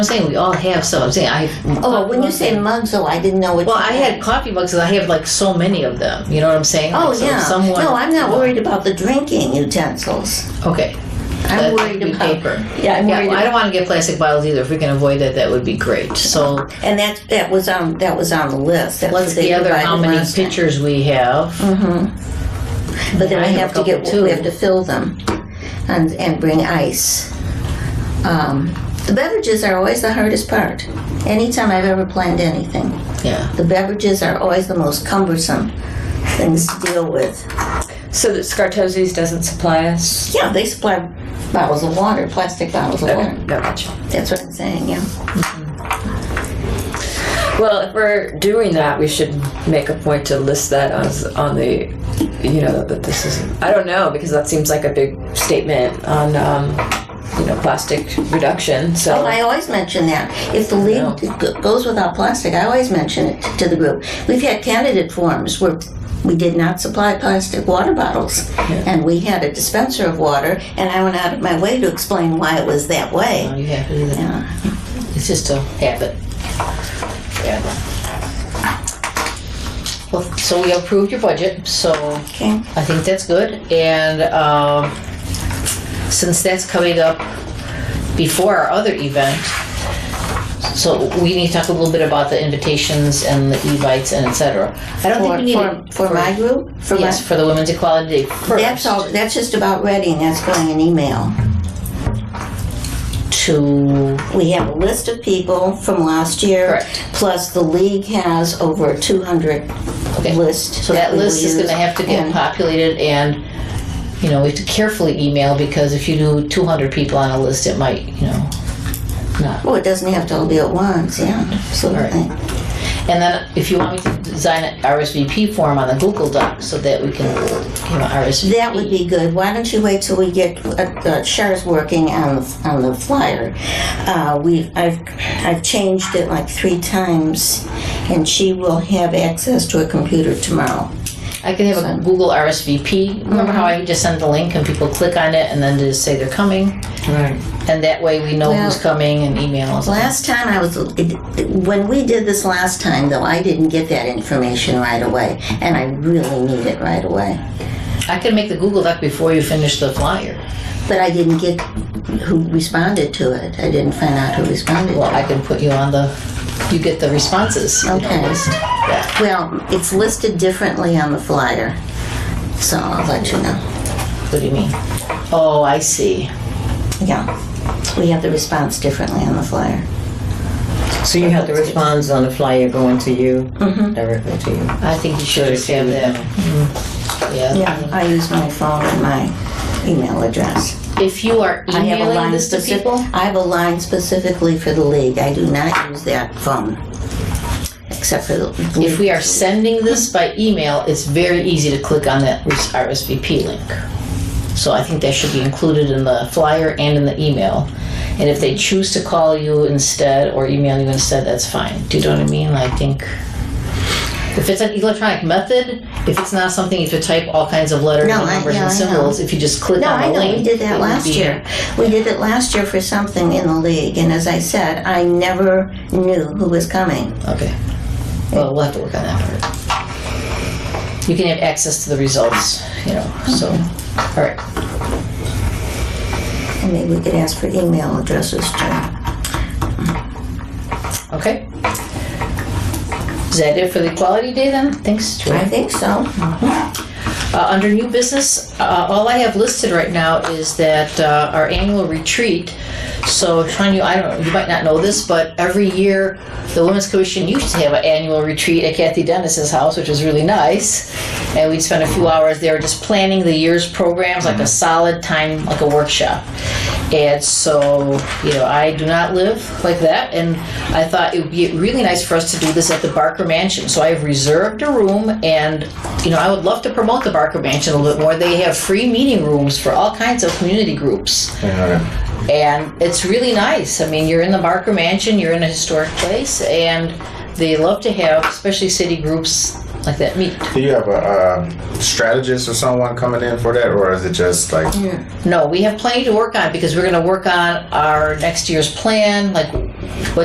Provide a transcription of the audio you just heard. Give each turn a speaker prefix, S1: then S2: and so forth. S1: I'm saying we all have some. I'm saying I.
S2: Oh, when you say mugs, oh, I didn't know what.
S1: Well,
S2: you
S1: I had coffee mugs and I have like so many of them. You know what I'm saying?
S2: Oh
S1: Like, so
S2: yeah.
S1: Someone.
S2: No, I'm not worried about the drinking utensils.
S1: Okay.
S2: I'm
S1: That
S2: worried
S1: would be
S2: about
S1: paper.
S2: Yeah, I'm
S1: Yeah,
S2: worried
S1: well, I
S2: about.
S1: don't want to get plastic bottles either. If we can avoid that, that would be great. So
S2: And that that was on that was on the list. That's
S1: let's
S2: what they
S1: gather how
S2: provided
S1: many
S2: last time. Mm.
S1: pictures we have.
S2: But then
S1: I
S2: we
S1: have
S2: have
S1: a
S2: to get
S1: couple, too.
S2: we have to fill them, and and bring ice. Um, the beverages are always the hardest part. Anytime I've ever planned anything,
S1: Yeah.
S2: the beverages are always the most cumbersome things to deal with.
S3: So that Scartosi's doesn't supply us?
S2: Yeah, they supply bottles of water, plastic bottles of
S3: Okay,
S2: water.
S3: got it.
S2: That's what I'm saying. Yeah.
S3: Well, if we're doing that, we should make a point to list that on, on the, you know, that this is, I don't know, because that seems like a big statement on, um, you know, plastic reduction,
S2: Oh,
S3: so.
S2: I always mention that. If the league g- goes without plastic, I always mention it to the group. We've had candidate forums where we did not supply plastic water bottles, and we had a dispenser of water, and I went out of my way to explain why it was that way.
S1: Oh, you have it either.
S2: Yeah.
S1: It's just a habit. Yeah. Well, so we approved your budget. So
S2: Okay.
S1: I think that's good. And um, since that's coming up before our other event, so we need to talk a little bit about the invitations and the e-bites and et cetera. I don't think
S2: For,
S1: we need
S2: for,
S1: it
S2: for my group, for my-
S1: Yes, for the Women's Equality Day first.
S2: that's all. That's just about ready, and that's going in email.
S1: To,
S2: We have a list of people from last year.
S1: Correct.
S2: Plus, the league has over 200
S1: Okay.
S2: list.
S1: so that
S2: we will
S1: list is
S2: use,
S1: gonna have to get
S2: and-
S1: populated and, you know, we have to carefully email because if you do 200 people on a list, it might, you know, not
S2: Well, it doesn't have to all be at once, yeah, absolutely.
S1: And then if you want me to design an RSVP form on the Google Doc so that we can, you know, RSVP.
S2: That would be good. Why don't you wait till we get, uh, uh, Char's working on, on the flyer. Uh, we, I've, I've changed it like three times, and she will have access to a computer tomorrow.
S1: I can have a Google RSVP. Remember how
S2: Mm-hmm.
S1: I just send the link and people click on it and then just say they're coming?
S3: Right.
S1: And that way we know who's
S2: Well-
S1: coming and emails.
S2: Last time I was, when we did this last time, though, I didn't get that information right away, and I really need it right away.
S1: I can make the Google Doc before you finish the flyer.
S2: But I didn't get who responded to it. I didn't find out who responded
S1: Well,
S2: to
S1: I
S2: it.
S1: can put you on the, you get the responses. you know,
S2: Okay.
S1: list. Yeah.
S2: Well, it's listed differently on the flyer, so I'll let you know.
S1: What do you mean? Oh, I see.
S2: Yeah. We have the response differently on the flyer.
S4: So you have the response on the flyer going to you, directly to you.
S1: I think you should just have that. Mm.
S2: Yeah, I use my phone and my email address.
S1: If you are
S2: I have a
S1: emailing
S2: line
S1: this to
S2: specific-
S1: people,
S2: I have a line specifically for the league. I do not use that phone. Except for the
S1: If we are sending this by email, it's very easy to click on that RSVP link. So I think that should be included in the flyer and in the email. And if they choose to call you instead or email you instead, that's fine. Do you know what I mean? I think if it's an electronic method, if it's not something you have to type all kinds of letters
S2: No,
S1: and
S2: I-
S1: numbers
S2: yeah,
S1: and
S2: I know.
S1: symbols, if you just click
S2: No,
S1: on the
S2: I know.
S1: link,
S2: We did that
S1: it would
S2: last
S1: be-
S2: year. We did it last year for something in the league, and as I said, I never knew who was coming.
S1: Okay. Well, we'll have to work on that part. You can have access to the results, you know, so, all right.
S2: And maybe we could ask for email addresses too.
S1: Okay. Is that it for the Equality Day then? Thanks,
S2: I
S1: Joy.
S2: think so.
S1: Uh, under new business, uh, all I have listed right now is that uh, our annual retreat. So, Tanya, I don't know, you might not know this, but every year the Women's Commission used to have an annual retreat at Kathy Dennis's house, which was really nice. And we'd spend a few hours there just planning the year's programs, like a solid time, like a workshop. And so, you know, I do not live like that, and I thought it would be really nice for us to do this at the Barker Mansion. So I have reserved a room, and you know, I would love to promote the Barker Mansion a little bit more. They have free meeting rooms for all kinds of community groups,
S5: Um,
S1: and it's really nice. I mean, you're in the Barker Mansion, you're in a historic place, and they love to have, especially city groups, like that meat.
S5: Do you have a um, strategist or someone coming in for that, or is it just like
S1: No, we have plenty to work on because we're going to work on our next year's plan, like what